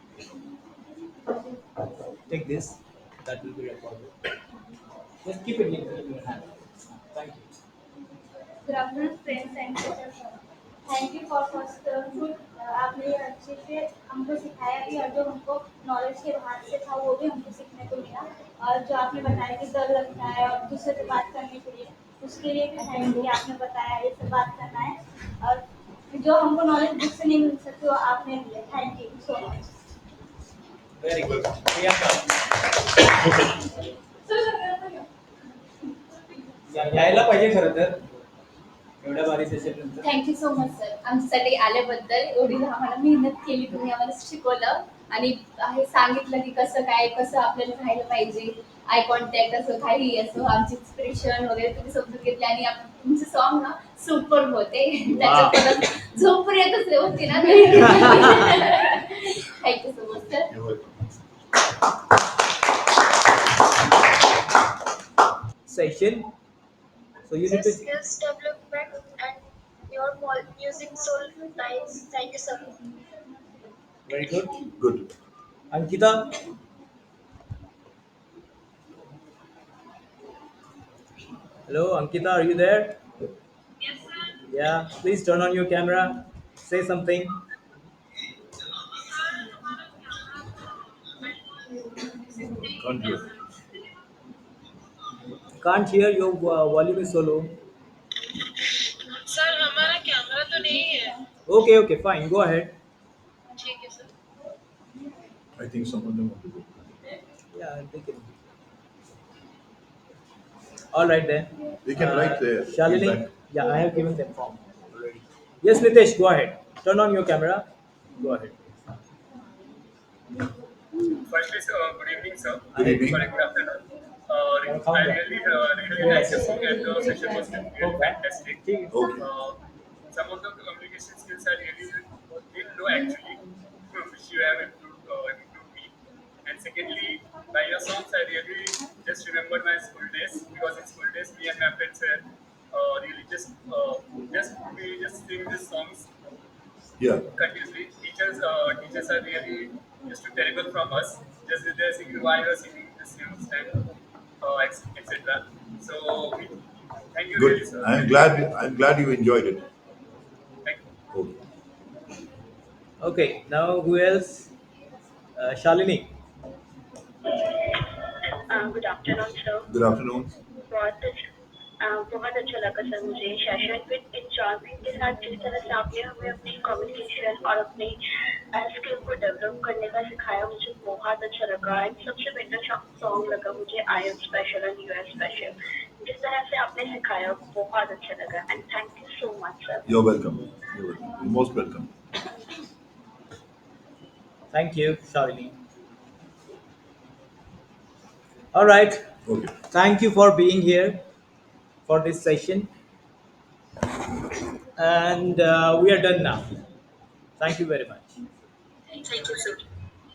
take this, that will be recorded. Just keep it in in your hand. Thank you. Good afternoon, friends and teachers. Thank you for first uh, आपने ये अच्छे से हमको सिखाया भी और जो हमको नॉलेज के बाहर से था वो भी हमको सीखने को मिला और जो आपने बताया कि डर लगता है और दूसरे से बात करने के लिए उसके लिए भी थैंक यू आपने बताया ये सब बात करना है और जो हमको नॉलेज बुक से नहीं मिल सकती वो आपने दिया thank you so much Very good. Priyanka या- यायला पाहिजे खरं तर एवढ्या भारी session नंतर थँक्यू सो मच सर आमच्यासाठी आल्याबद्दल एवढी आम्हाला मेहनत केली तुम्ही आम्हाला शिकवलं आणि हे सांगितलं की कसं काय कसं आपल्याला राहायला पाहिजे आय कॉन्टॅक्ट असो काही असो आमची एक्सप्रेशन वगैरे तुम्ही समजून घेतले आणि आप- तुमचे सॉन्ग ना सुपर होते त्याच्यात झोप येतच होती ना thank you so much sir session so you need This to skills development and your mol- music soul lives. Thank you so much. Very good Good. Ankita Hello, Ankita, are you there? Yeah, please turn on your camera. Say something. Can't hear. Can't hear your uh, volume is so low. Sir हमारा camera तो नहीं है Okay, okay, fine. Go ahead. ठीक है sir I think some of them want to go. Yeah, they can. All right then. Uh, They can write their Shalini. feedback. Yeah, I have given them form. already. Yes, Nitesh, go ahead. Turn on your camera. Go ahead. Firstly, sir, uh, good evening, sir. Good evening. Sorry, good afternoon. Uh, re- Welcome I back. really, uh, really like the book and uh, the session was really Okay. fantastic. Okay. Uh, some of the communication skills are really been low actually, uh, which you have improved, uh, improved me. And secondly, by your songs, I really just remembered my school days because in school days, me and my friends were uh, really just uh, just we just sing these songs Yeah. continuously. Teachers, uh, teachers are really just too terrible from us. Just that they're singing why you're singing this news and uh, etc. So we thank you really, Good. sir. I'm glad. I'm glad you enjoyed it. Thank you. Okay. Okay, now who else? Uh, Shalini. Uh, good afternoon, sir. Good afternoon. बहुत uh, बहुत अच्छा लगा sir मुझे session with enjoyment के साथ जिस तरह से आपने हमें अपनी कम्युनिकेशन और अपनी स्किल को डेवलप करने का सिखाया मुझे बहुत अच्छा लगा एंड सबसे बेटर सॉन्ग लगा मुझे I am special and you are special जिस तरह से आपने सिखाया बहुत अच्छा लगा and thank you so much sir You're welcome. You're welcome. You're most welcome. Thank you, Shalini. All right. Okay. Thank you for being here for this session. And uh, we are done now. Thank you very much. Thank you sir